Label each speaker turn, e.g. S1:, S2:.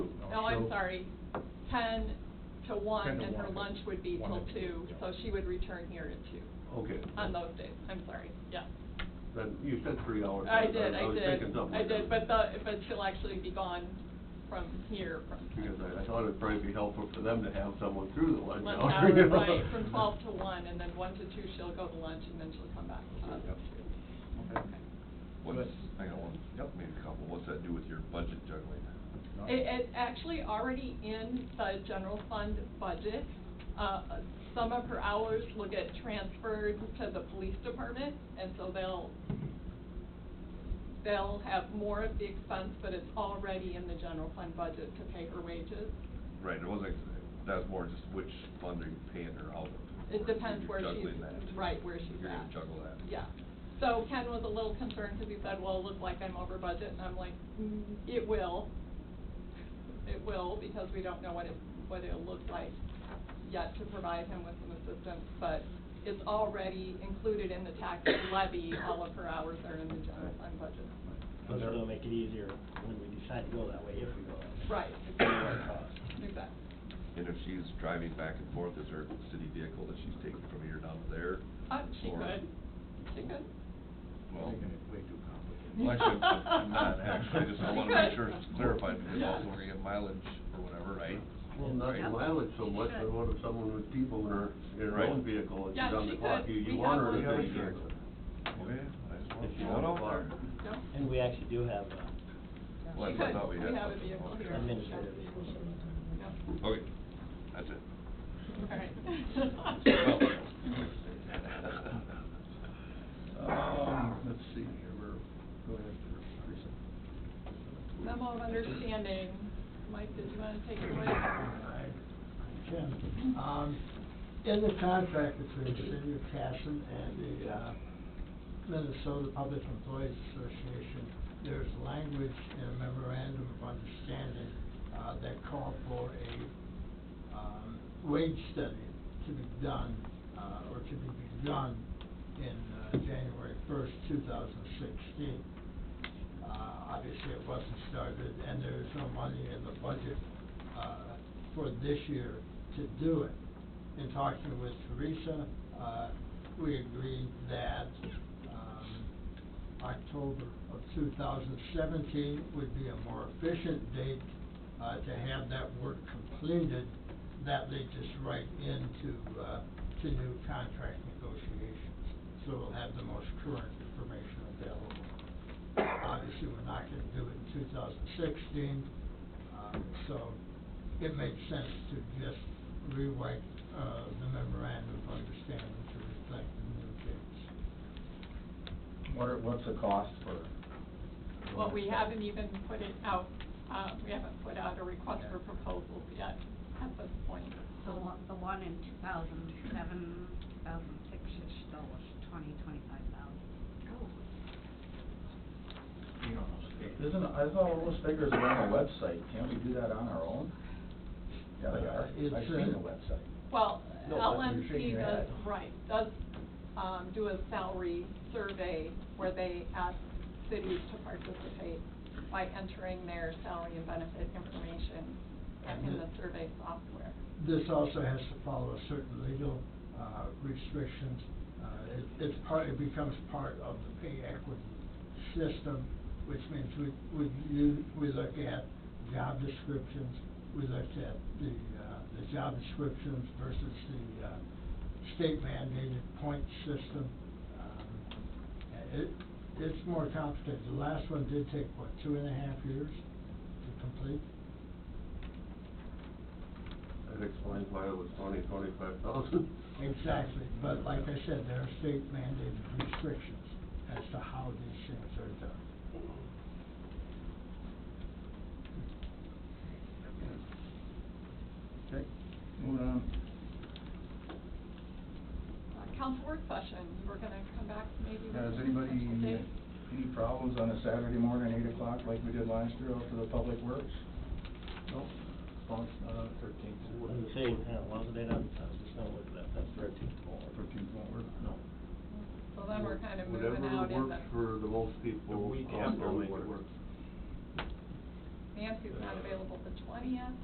S1: no, Oh, I'm
S2: So-
S1: sorry, ten to
S2: 10
S1: one,
S2: to
S1: and her
S2: 1,
S1: lunch would be
S2: 1
S1: till
S2: to 2,
S1: two,
S2: yeah.
S1: so she would return here at two,
S3: Okay.
S1: on those days, I'm sorry, yeah.
S3: Then you said three hours.
S1: I did, I
S3: was thinking
S1: did,
S3: something
S1: I
S3: like
S1: did, but
S3: that.
S1: the, but she'll actually be gone from here, from.
S3: Because I, I thought it'd probably be helpful for them to have someone through the lunch
S1: Lunch
S3: hour. you
S1: hour,
S3: know?
S1: right, from twelve to one, and then one to two, she'll go to lunch, and then she'll come back to us.
S3: Yep.
S2: Okay.
S4: What's, hang on, one-
S2: Yep.
S4: maybe a couple, what's that do with your budget juggling?
S2: No?
S1: It, it's actually already in the general fund budget. Uh, some of her hours will get transferred to the police department, and so they'll, they'll have more of the expense, but it's already in the general fund budget to pay her wages.
S4: Right, it wasn't, that was more just which fund are you paying her out of?
S1: It depends where
S4: You're
S1: she's,
S4: juggling that.
S1: right, where she's at.
S4: You're gonna juggle that.
S1: Yeah. So Ken was a little concerned because he said, well, it looked like I'm over budget, and I'm like, "Mm, it will. It will, because we don't know what it, what it'll look like yet to provide him with some assistance, but it's already included in the tax levy, all of her hours are in the general fund budget.
S5: Plus it'll make it easier when we decide to go that way, if we go that way.
S1: Right.
S5: It's gonna be our cost.
S1: Exactly.
S4: And if she's driving back and forth, is there a city vehicle that she's taking from here down to there?
S1: Uh, she
S4: Or-
S1: could, she could.
S4: Well,
S2: Making it way too complicated.
S4: well, actually, I'm- I'm not actually, just I wanna
S1: She
S4: make sure
S1: could.
S4: it's clarified, because
S1: Yeah.
S4: also we're gonna get mileage or whatever, right?
S3: Well, not the
S4: Right.
S3: mileage so much, but what if someone with people in her, in her
S4: Right.
S3: own vehicle and
S1: Yeah,
S3: she's on
S1: she
S3: the clock,
S1: could.
S3: you, you
S1: We
S3: want
S1: have
S3: her to
S1: one.
S3: take
S1: We have a
S3: care of it.
S1: vehicle.
S4: Okay, I just want
S3: If
S4: to
S3: she's
S4: throw
S3: on
S4: it
S3: the
S4: out
S3: clock.
S4: there.
S1: No?
S5: And we actually do have uh,
S4: Well,
S1: She
S4: that's what I
S1: could.
S4: thought we had.
S1: have a vehicle here.
S5: administrative vehicles.
S1: Yeah.
S4: Okay, that's it.
S1: All right.
S4: Well,
S2: Um, let's see here, we're, go ahead for recent.
S1: Memo of understanding. Mike, did you want to take it away?
S6: Alright, Jim, um, in the contract between the city of Casson and the, uh, Minnesota Public Employees Association, there's language in a memorandum of understanding, uh, that called for a, um, wage study to be done, uh, or to be begun in, uh, January first, two thousand sixteen. Uh, obviously, it wasn't started, and there's no money in the budget, uh, for this year to do it. In talking with Teresa, uh, we agreed that, um, October of two thousand seventeen would be a more efficient date, uh, to have that work completed. That leads us right into, uh, to new contract negotiations. So we'll have the most current information available obviously, we're not gonna do it in two thousand sixteen, um, so it makes sense to just rewrite, uh, the memorandum of understanding to reflect the new dates.
S2: What are, what's the cost for?
S1: Well, we haven't even put it out, uh, we haven't put out a request for proposals yet at this point.
S7: The one, the one in two thousand seven, two thousand six-ish, though, was twenty, twenty-five thousand.
S2: You don't know the figures. Isn't, I thought all those figures are on the website, can't we do that on our own? Yeah, they are,
S6: It's,
S2: I've seen
S6: uh,
S2: the website.
S1: Well,
S2: No, but you're shaking
S1: LNC
S2: your
S1: does,
S2: head.
S1: right, does, um, do a salary survey where they ask cities to participate by entering their salary and benefit information in the survey software.
S6: This also has to follow certain legal, uh, restrictions. Uh, it, it's part, it becomes part of the pay equity system, which means we, we, u- we look at job descriptions, we look at the, uh, the job descriptions versus the, uh, state mandated point system. Um, It, it's more complicated. The last one did take, what, two and a half years to complete?
S3: That explains why it was twenty, twenty-five thousand.
S6: Exactly, but like I said, there are state mandated restrictions as to how these things are done.
S2: Okay, moving on.
S1: Uh, Council work session, we're gonna come back maybe with.
S2: Has
S1: some
S2: anybody, uh,
S1: potential dates.
S2: any problems on a Saturday morning, eight o'clock, like we did last year, out for the public works?
S3: Nope, Well, uh, thirteenth.
S5: I was gonna say, uh, wasn't it on, I was just gonna look at that, that's thirteen more.
S2: Thirteenth won't work?
S5: No.
S1: So then we're kind of moving out
S3: Whatever
S1: in the,
S3: works for the most people,
S5: The week
S3: I'll
S5: after
S3: I'll make it
S5: work.
S3: work.
S1: Nancy's not available the twentieth.